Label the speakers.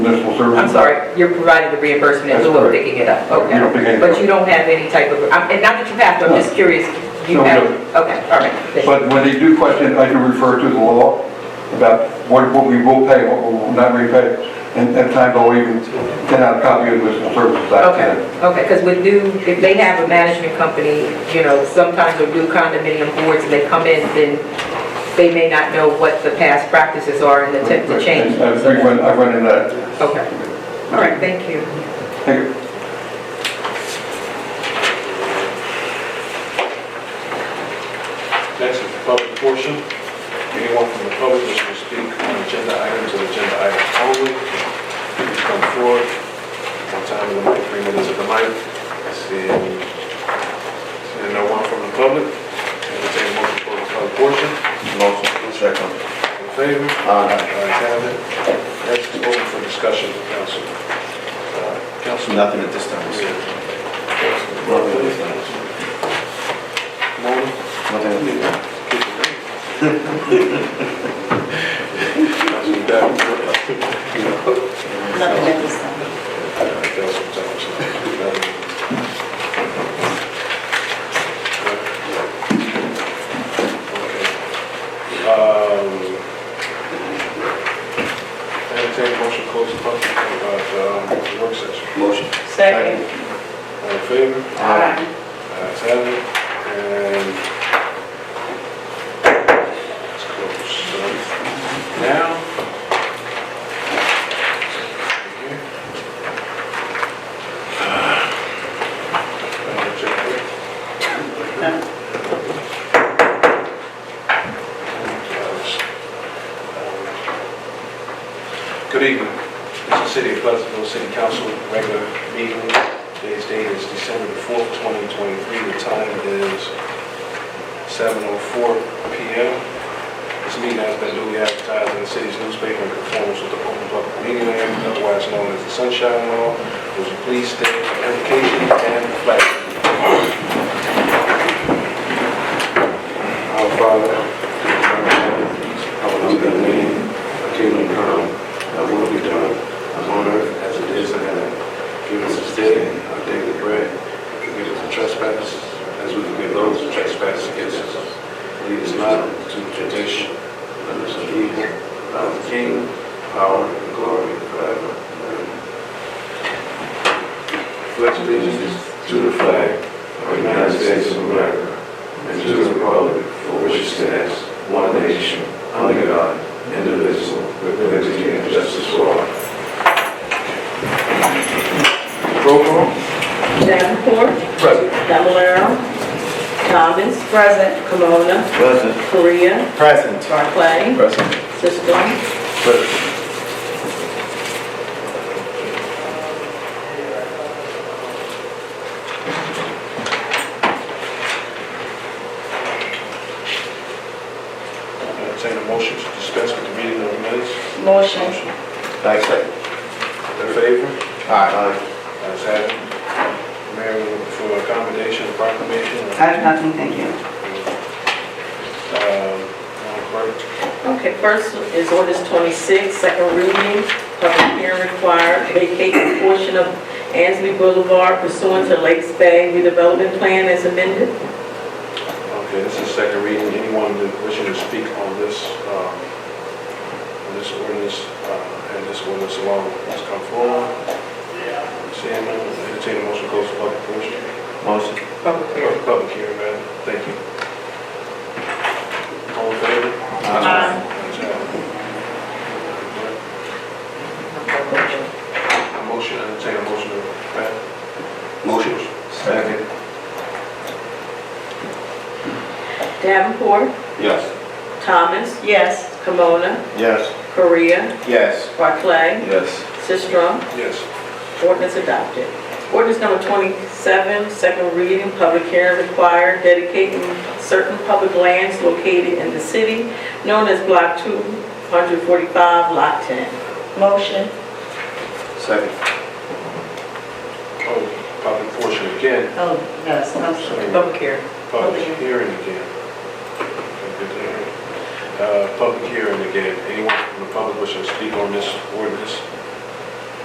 Speaker 1: municipal service.
Speaker 2: I'm sorry, you're providing the reimbursement in
Speaker 1: That's
Speaker 2: lieu of
Speaker 1: correct.
Speaker 2: picking it up,
Speaker 1: You don't pick
Speaker 2: okay?
Speaker 1: anything
Speaker 2: But
Speaker 1: up.
Speaker 2: you don't have any type of, I'm- and not that you have to, I'm just curious, you
Speaker 1: No, we
Speaker 2: have,
Speaker 1: don't.
Speaker 2: okay, all right. thank you.
Speaker 1: But when they do question, it, I do refer to the law about what, what we will pay, what we will not repay. And at times I'll even send out a copy of the municipal services act.
Speaker 2: Okay, okay, because with new, if they have a management company, you know, sometimes with new condominium boards, and they come in, then they may not know what the past practices are and attempt to change.
Speaker 1: And I've run, I've run into that.
Speaker 2: Okay, all right, thank you.
Speaker 1: Thank you.
Speaker 3: Next is the public portion. Anyone from the public wishing to speak on agenda items or agenda items only, please come forward. One time in the mic, three minutes at the mic. Seeing, seeing no one from the public, entertain a motion for the public portion.
Speaker 4: Motion, second.
Speaker 3: In favor? Ayes
Speaker 4: Aye.
Speaker 3: have it. Next is open for discussion with council. Uh, Council.
Speaker 4: Nothing at this time, sir.
Speaker 3: Morning.
Speaker 4: Nothing at this time.
Speaker 3: Councilman Davenport.
Speaker 5: Nothing at this time.
Speaker 3: Councilman Entertained motion to close the public, uh, um, work session.
Speaker 4: Motion.
Speaker 5: Second.
Speaker 3: All in favor?
Speaker 5: Aye.
Speaker 3: Ayes have it, and it's closed. So Now. Good evening. This is City of Pleasantville City Council regular meeting. Today's date is December the 4th, 2023. The time is 7:04 PM. This meeting has been duly advertised in the city's newspaper in conformance with the Open Public Meeting Act, otherwise known as the Sunshine Law. Would you please stand for invocation and the flag?
Speaker 6: Our Father, our be thy name, thy kingdom come, thy will be done, on earth as it is in heaven. Give us this day our daily bread, and forgive us our trespasses, as we forgive those who trespass against us. Lead us not into temptation, but deliver us from evil. Thou art the kingdom, power, and glory forever. Amen. Pledge allegiance to the flag of the United States of America, and to the republic for which it stands, one nation, under God, indivisible, with liberty and justice for all.
Speaker 3: Roll call.
Speaker 5: Davenport,
Speaker 3: Present.
Speaker 5: Fablelaro, Thomas. Present. Camona,
Speaker 4: Present.
Speaker 5: Korea,
Speaker 4: Present.
Speaker 5: Barclay,
Speaker 4: Present.
Speaker 5: Sisram,
Speaker 3: Entertain a motion to dispense with the reading of the minutes.
Speaker 5: Motion.
Speaker 4: Back second.
Speaker 3: In favor?
Speaker 4: Aye.
Speaker 3: Ayes have it. Mayor, for accommodation and proclamation.
Speaker 7: I have nothing, thank you.
Speaker 3: Um, Madam Clerk.
Speaker 5: Okay, first is ordinance 26, second reading, public hearing required, vacate a portion of Ansley Boulevard pursuant to Lakes Bay redevelopment plan as amended.
Speaker 3: Okay, this is second reading. Anyone that wishing to speak on this, um, on this ordinance, uh, and this ordinance alone, please come forward. Seeing none, entertain a motion to close the public portion.
Speaker 4: Motion.
Speaker 5: Public hearing.
Speaker 3: Public hearing, man. Thank you. All in favor?
Speaker 5: Aye.
Speaker 3: Ayes have it. A motion, entertain a motion to, Pat?
Speaker 4: Motion. Second.
Speaker 5: Davenport,
Speaker 4: Yes.
Speaker 5: Thomas. Yes. Camona,
Speaker 4: Yes.
Speaker 5: Korea,
Speaker 4: Yes.
Speaker 5: Barclay,
Speaker 4: Yes.
Speaker 5: Sisram,
Speaker 3: Yes.
Speaker 5: Ordinance adopted. Ordinance number 27, second reading, public hearing required, dedicating certain public lands located in the city known as Block 245, Lot 10. Motion.
Speaker 4: Second.
Speaker 3: Oh, public portion again,
Speaker 5: Oh, yes, I'm
Speaker 3: sorry.
Speaker 5: Public hearing.
Speaker 3: public hearing again. Uh, Public hearing again, anyone from the public wishing to speak on this ordinance,